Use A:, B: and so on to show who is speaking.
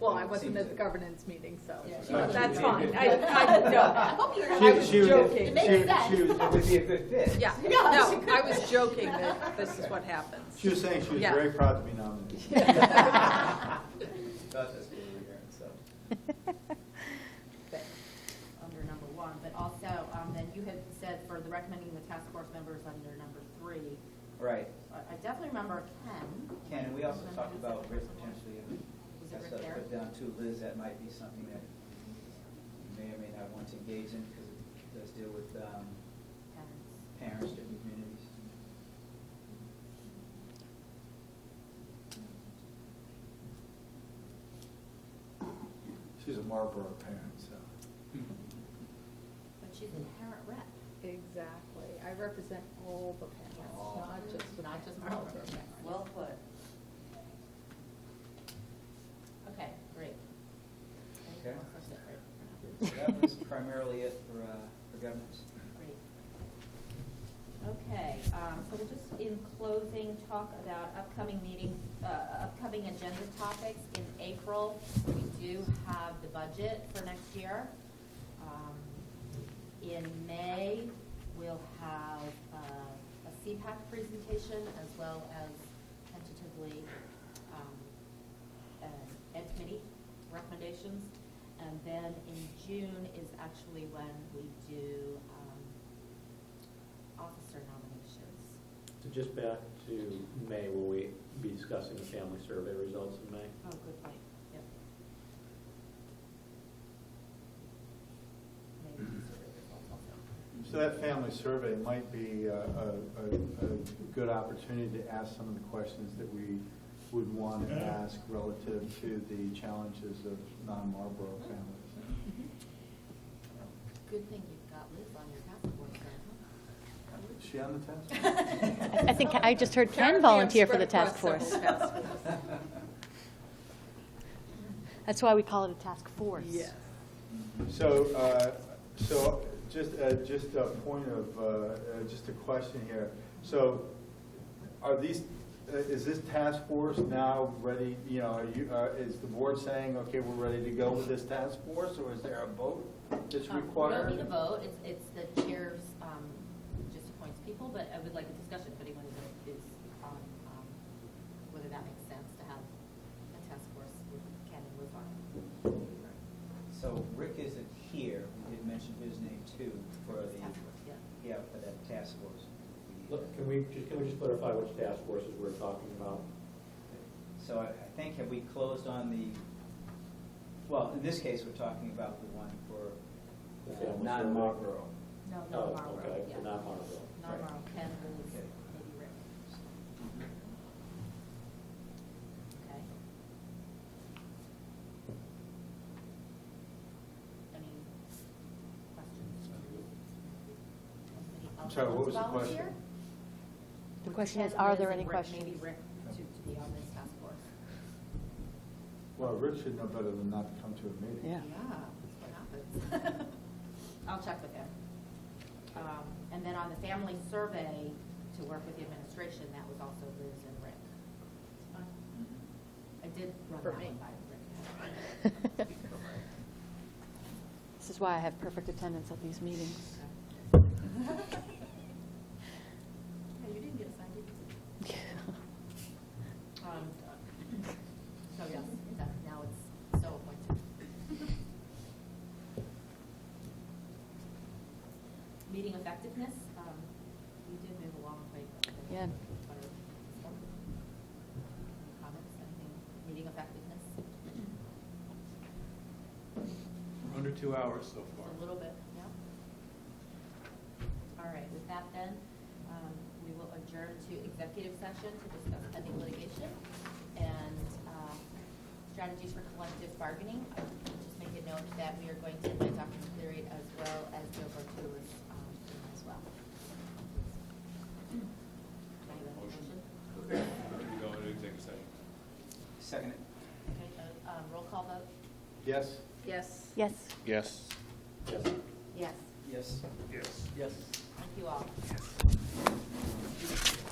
A: Well,
B: Oh,
A: I wasn't at the governance meeting, so,
B: Yeah.
A: that's fine, I, I, no, I was
B: She- she was-
A: joking.
B: she-
C: makes
B: she-
C: sense.
B: She was, it would be a good fit.
A: yeah, no, I was joking that this is what happens.
B: She was saying she was
A: Yeah.
B: very proud to be nominated. Not this being here, so.
C: but under number one, but also, um, then you had said for the recommending the task force members under number three.
D: Right.
C: I I definitely remember Ken.
D: Ken, and we also talked about Rick potentially,
C: Was it
D: that's
C: Rick
D: what I
C: there?
D: put down to Liz, that might be something that you may or may not want to engage in, because it does deal with um,
C: Ken's.
D: parents, different communities.
B: She's a Marlboro parent, so.
C: But she's an inherent rep.
A: Exactly, I represent all the parents, not just the
C: Not just
A: Marlboro
C: Marlboro.
A: parents.
C: Well put. Okay, great.
D: Okay.
C: Great.
D: So that was primarily it for, uh, for governance.
C: Okay, um, so we'll just in closing, talk about upcoming meeting, uh, upcoming agenda topics. In April, we do have the budget for next year. Um, In May, we'll have uh, a CPAC presentation as well as tentatively um, an ed committee recommendations. And then in June is actually when we do um, officer nominations.
E: So just back to May, will we be discussing the family survey results in May?
C: Oh, good point, yep. Maybe these are the results also.
B: So that family survey might be uh, a, a, a good opportunity to ask some of the questions that we would want to ask relative to the challenges of non-Marlboro families.
C: Good thing you've got Liz on your task force then,
B: Is she on the task?
C: huh?
F: I think I just heard Ken
A: Apparently I'm
F: volunteer for the
A: spread
F: task
A: across several
F: force.
A: task forces.
F: That's why we call it a task force.
A: Yes.
D: Mm-hmm.
B: So, uh, so just, uh, just a point of, uh, uh, just a question here. So are these, uh, is this task force now ready, you know, are you, uh, is the board saying, okay, we're ready to go with this task force? Or is there a vote that's
C: Um,
B: required?
C: We don't need a vote, it's, it's the chair's, um, just appoints people, but I would like a discussion if anyone is, is on, um, whether that makes sense to have a task force with Ken and Liz on.
D: So Rick isn't here, we did mention his name too for
C: it. Task force,
D: the, yeah,
C: yeah.
D: for that task force.
E: Look, can we, just, can we just clarify which task forces we're talking about?
D: So I I think, have we closed on the, well, in this case, we're talking about the one
E: The
D: for uh,
E: family
D: non-Marlboro.
C: No,
E: Oh,
C: no, Marlboro,
E: okay,
C: yeah.
E: so not Marlboro.
C: Not Marlboro, Ken, Liz,
D: Okay.
C: maybe Rick, okay? Any questions? Anybody
B: I'm
C: else
B: sorry, what
C: want
B: was
C: to
B: the question?
C: volunteer?
F: The
C: With
F: question is,
C: Ken,
F: are
C: Liz,
F: there
C: and
F: any
C: Rick, Maybe Rick
F: questions?
C: to, to be on this task force.
B: Well, Rick should know better than not to come to a meeting.
F: Yeah.
C: that's what happens. I'll check with him. Um, and then on the family survey, to work with the administration, that was also Liz and Rick. I did run
A: For
C: that
A: me.
C: one by Rick.
F: This is why I have perfect attendance at these meetings.
C: No, you didn't get assigned, did you? Um, So, yes, that, now it's so appointed. Meeting effectiveness, um, we did move a long way. but-
F: Yeah.
C: but it's- Any Comments, anything, meeting effectiveness?
G: Under two hours so far.
C: A little bit, yeah. All right, with that then, um, we will adjourn to executive session to discuss pending litigation and um, strategies for collective bargaining. I will Just make a note that we are going to invite Dr. Cleary as well as Joe Bartulis um, as well. Can I have a motion?
G: We go into executive session.
D: Second it.
C: Okay, uh, um, roll call vote?
B: Yes?
A: Yes.
F: Yes.
G: Yes.
E: Yes.
C: Yes.
D: Yes.
G: Yes.
D: Yes.
C: Thank you all.